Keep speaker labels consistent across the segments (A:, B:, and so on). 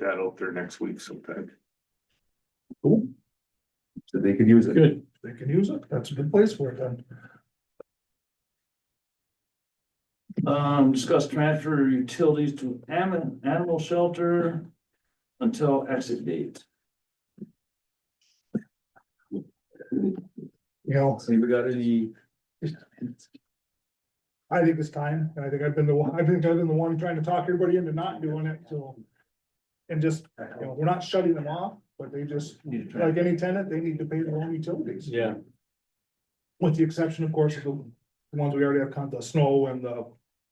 A: that out there next week sometime.
B: Cool.
A: So they could use it.
B: Good, they can use it, that's a good place for it then.
C: Um, discuss transfer utilities to animal, animal shelter until exit date.
B: You know,
C: See, we got any?
B: I think it's time, and I think I've been the, one- I think I've been the one trying to talk everybody into not doing it, so. And just, you know, we're not shutting them off, but they just, like any tenant, they need to pay their own utilities.
C: Yeah.
B: With the exception, of course, of the ones we already have, con- the snow and the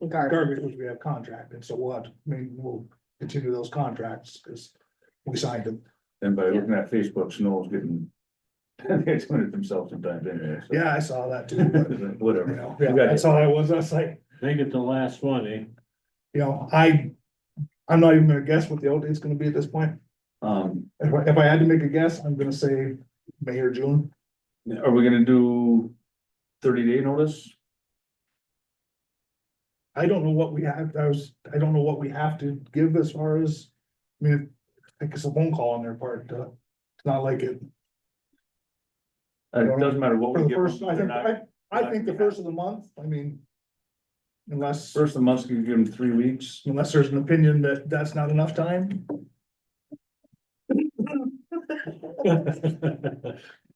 D: Garbage.
B: garbage, which we have contracted, so what, I mean, we'll continue those contracts, because we signed them.
A: And by looking at Facebook, Snow's getting. They're doing it themselves sometimes anyway. so-
B: Yeah, I saw that too, but, you
A: Whatever.
B: know, yeah, that's all I was, I was like,
C: They get the last one, eh?
B: you know, I, I'm not even gonna guess what the outdate's gonna be at this point.
A: Um,
B: If I, if I had to make a guess, I'm gonna say May or June.
A: are we gonna do thirty day notice?
B: I don't know what we have, I was, I don't know what we have to give as far as, I mean, I think it's a phone call on their part, uh, it's not like it,
A: Uh, It doesn't matter what we
B: for the
A: give. them,
B: first, I
A: they're
B: think,
A: not-
B: I, I think the first of the month, I mean. Unless,
A: First of the month, you can give them three weeks.
B: unless there's an opinion that that's not enough time,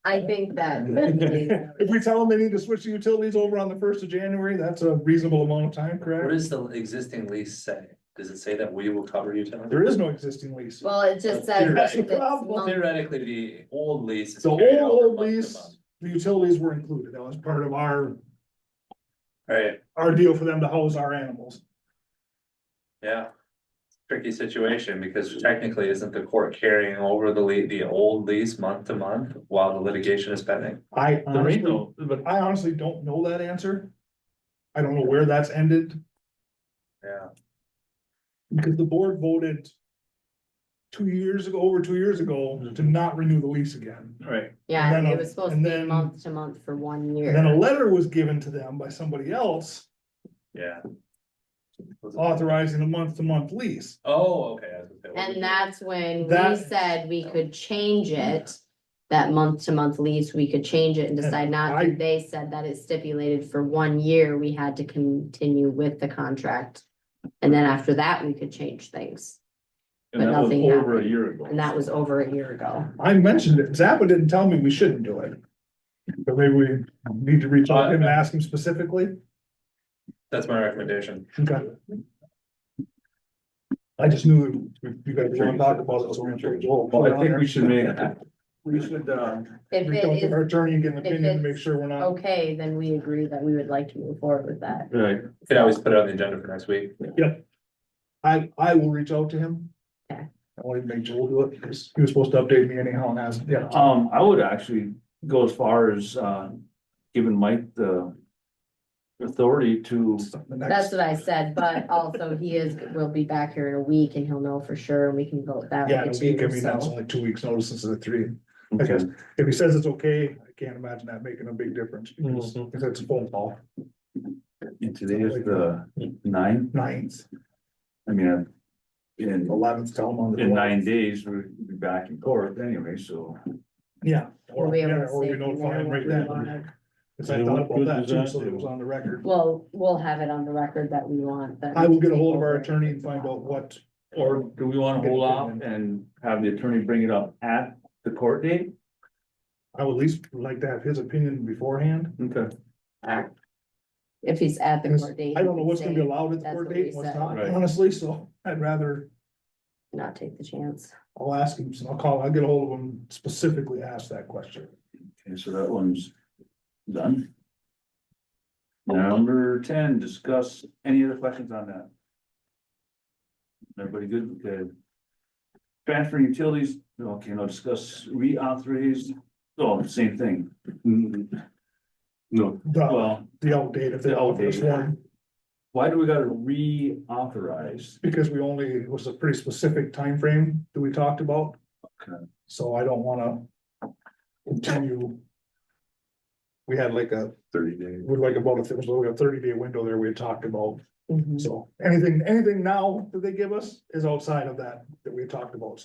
D: I think that.
B: if we tell them they need to switch the utilities over on the first of January, that's a reasonable amount of time,
E: What
B: correct?
E: does the existing lease say? Does it say that we will cover utilities?
B: There is no existing lease.
D: Well, it just says.
E: That's the
D: that it's
B: problem.
D: month-
E: Theoretically, the old lease. is
B: The
E: carried
B: old,
E: over
B: old
E: month to
B: lease,
E: month.
B: the utilities were included, that was part of our,
E: Right,
B: our deal for them to house our animals.
E: yeah. Tricky situation because technically isn't the court carrying over the lea- the old lease month to month while the litigation is pending?
B: I
C: There ain't
B: honestly,
C: no, but
B: I honestly don't know that answer. I don't know where that's ended,
E: Yeah,
B: because the board voted two years ago, over two years ago, to not renew the lease again.
A: Right.
D: Yeah,
B: And
D: and
B: then
D: it
B: a-
D: was supposed to
B: and
D: be
B: then-
D: month to month for one
B: And then a
D: year.
B: letter was given to them by somebody else
E: yeah.
B: authorizing a month-to-month lease.
E: Oh, okay. I was gonna say, well, we-
D: And that's when we
B: That-
D: said we could change it. That month to month lease, we could change it and decide not
B: I-
D: to. They said that it's stipulated for one year. We had to continue with the contract. And then after that, we could change things.
A: And
D: But
A: that was
D: nothing
A: over a
D: happened.
A: year ago.
D: And that was over a year ago.
B: I mentioned it, Zappa didn't tell me we shouldn't do it. But maybe we need to reach out to him and ask him specifically.
E: That's my recommendation.
B: Okay. I just knew you you guys were gonna talk about it, so we're gonna.
A: Well, I think we should make, we should, uh,
D: If
B: Reach out
D: it
B: to
D: is
B: our attorney and get an
D: if
B: opinion to make
D: it's Oh.
B: sure we're not,
D: okay, then we agree that we would like to move forward with that.
A: right,
E: Could always put it on the agenda for next week.
B: I, I will reach out to him.
D: Okay.
B: I want to make Joel do it, because he was supposed to update me anyhow and ask, yeah,
A: Um, I would actually go as far as, uh, giving Mike the authority to,
B: the next.
D: That's what I said, but also he is, will be back here in a week and he'll know for sure and we can vote that
B: Yeah,
D: way
B: and we
D: too,
B: give me that's
D: so.
B: only two weeks notice instead of three. I
A: okay,
B: guess if he says it's okay, I can't imagine that making a big difference, because
A: Mm-hmm.
B: because it's a phone call,
A: and today is the ninth,
B: ninth,
A: I mean, uh, in,
B: eleventh, tell him on the.
A: in nine days, we'll be back in court anyway, so.
B: Yeah. Or,
D: We'll be able
B: yeah,
D: to
B: or we
D: say
B: notify him
D: more
B: right
D: what we
B: then.
D: want.
B: Cause I thought about that too, so it was on the record.
D: Well, we'll have it on the record that we want that.
B: I will get a hold of our attorney and find out what,
A: Or do we wanna hold off and have the attorney bring it up at the court date?
B: I would at least like to have his opinion beforehand.
A: Okay.
D: If he's at the
B: Because
D: court date.
B: I don't know what's
D: he
B: gonna
D: can
B: be
D: say,
B: allowed at the
D: That's
B: court
D: what
B: date,
D: we
B: and what's
D: said.
B: not,
A: Right.
B: honestly, so I'd rather,
D: Not take the chance.
B: I'll ask him, so I'll call, I'll get a hold of him specifically, ask that question.
A: Okay, so that one's done. Number ten, discuss any other questions on that? Everybody good? Okay. Transfer utilities, okay, now discuss reauthorize, oh, same thing. No.
B: The,
A: Well,
B: the outdate, if they
A: The
B: all this
A: outdate.
B: one,
A: why do we gotta reauthorize?
B: because we only, it was a pretty specific time frame that we talked about.
A: Okay.
B: So I don't wanna continue we had like a,
F: thirty days.
B: would like about, a- it was like a thirty day window there we had talked about. Mm-hmm. So anything, anything now that they give us is outside of that, that we had talked about, so.